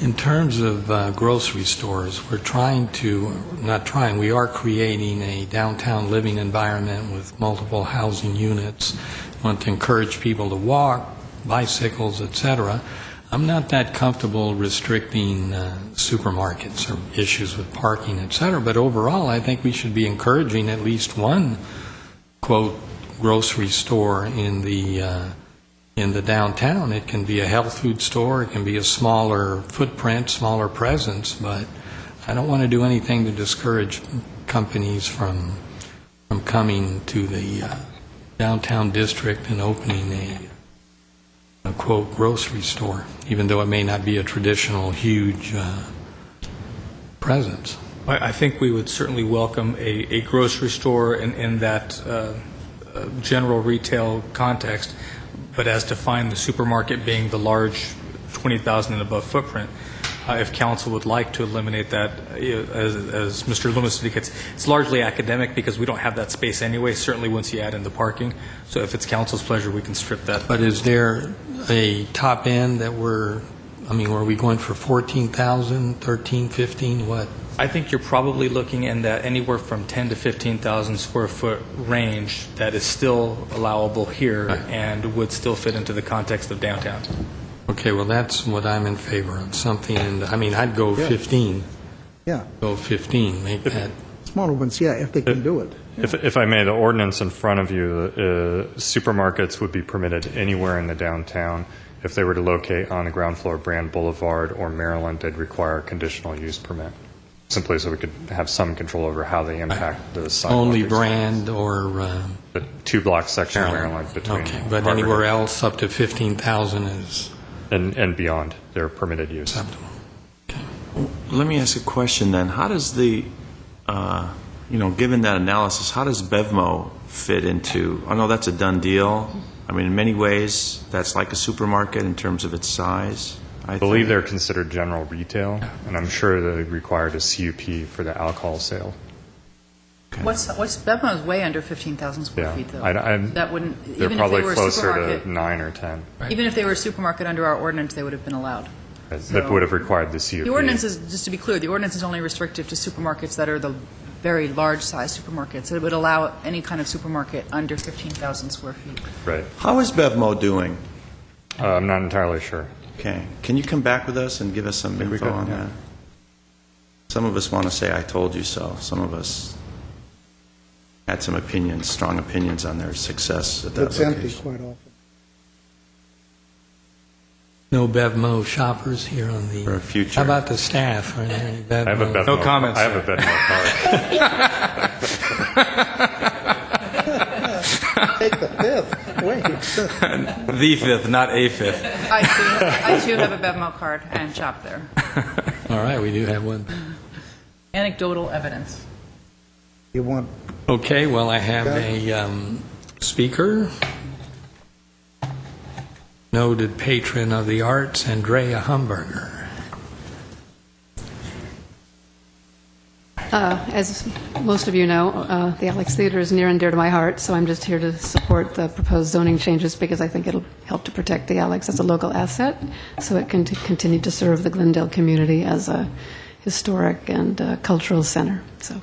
In terms of uh, grocery stores, we're trying to, not trying, we are creating a downtown living environment with multiple housing units. Want to encourage people to walk, bicycles, et cetera. I'm not that comfortable restricting uh, supermarkets or issues with parking, et cetera, but overall, I think we should be encouraging at least one, quote, grocery store in the uh, in the downtown. It can be a health food store, it can be a smaller footprint, smaller presence, but I don't want to do anything to discourage companies from, from coming to the uh, downtown district and opening a, a quote, grocery store, even though it may not be a traditional huge uh, presence. I I think we would certainly welcome a a grocery store in in that uh, uh, general retail context, but as defined, the supermarket being the large 20,000 and above footprint, uh, if council would like to eliminate that, uh, as as Mr. Loomis indicates, it's largely academic because we don't have that space anyway, certainly once you add in the parking. So if it's council's pleasure, we can strip that. But is there a top end that we're, I mean, were we going for 14,000, 13, 15, what? I think you're probably looking in that anywhere from 10 to 15,000 square foot range that is still allowable here Right. and would still fit into the context of downtown. Okay, well, that's what I'm in favor of, something, in the I mean, I'd go 15, Yeah, go 15, make that, smaller ones, yeah, if they can do it. If, if I may, the ordinance in front of you, uh, supermarkets would be permitted anywhere in the downtown. If they were to locate on the ground floor of Brand Boulevard or Maryland, they'd require a conditional use permit, simply so we could have some control over how they impact the sidewalk. only ex- brand or uh, The two-block section of Maryland. Maryland between. Okay, but Harvard anywhere else up to 15,000 is And, and beyond, they're permitted use. acceptable. Let me ask a question then. How does the, uh, you know, given that analysis, how does Bevmo fit into, I know that's a done deal. I mean, in many ways, that's like a supermarket in terms of its size. I believe they're considered general retail, and I'm sure they required a CUP for the alcohol sale. What's, what's, Bevmo's way under 15,000 square Yeah. feet, though. I- I'm- That wouldn't, They're even if they probably were a closer to Mm. supermarket, nine or 10. even if they were a supermarket under our ordinance, they would have been allowed. That uh, So- would have required the CUP. The ordinance is, just to be clear, the ordinance is only restrictive to supermarkets that are the very large-sized supermarkets. It would allow any kind of supermarket under 15,000 square feet. Right. How is Bevmo doing? Uh, I'm not entirely sure. Okay. Can you come back with us and give us some Think we info could, on yeah. that? Some of us want to say, I told you so. Some of us had some opinions, strong opinions on their success at that It's empty location. quite often. No BevMo shoppers here on the... For future. How about the staff? Are there any I have a BevMo? Bevmo. No comments, I have a Bevmo card. Take the fifth, wait. The fifth, not a fifth. I too, I too have a Bevmo card and shop there. All right, we do have one. Anecdotal evidence. You want Okay, well, I have a um, speaker, noted patron of the arts, Andrea Humberger. Uh, As most of you know, uh, the Alex Theater is near and dear to my heart, so I'm just here to support the proposed zoning changes because I think it'll help to protect the Alex as a local asset, so it can t- continue to serve the Glendale community as a historic and uh, cultural center. So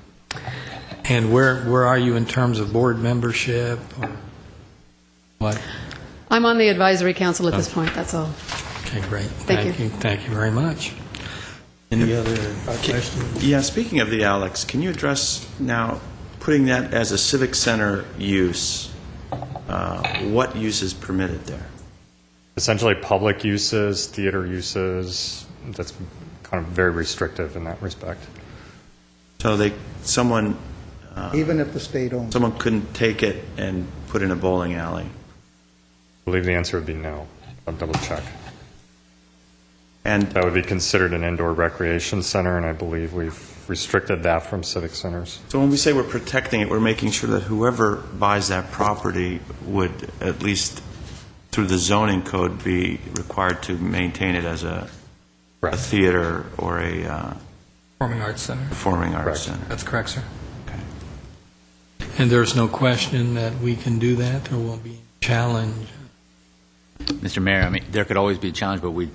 And where, where are you in terms of board membership or what? I'm on the advisory council at this point, that's all. Okay, great. Thank you. Thank you very much. Any other questions? Yeah, speaking of the Alex, can you address now putting that as a civic center use? uh, What use is permitted there? Essentially, public uses, theater uses, that's kind of very restrictive in that respect. So they, someone, Even if the state owns. it. someone couldn't take it and put in a bowling alley. I believe the answer would be no. I'll double check. And That would be considered an indoor recreation center, and I believe we've restricted that from civic centers. so when we say we're protecting it, we're making sure that whoever buys that property would, at least through the zoning code, be required to maintain it as a a Correct. theater or a uh, Performing Arts Center. performing arts Correct. center. That's correct, sir. And there's no question that we can do that, there won't be challenge Mr. Mayor, I mean, there could always be a challenge, but we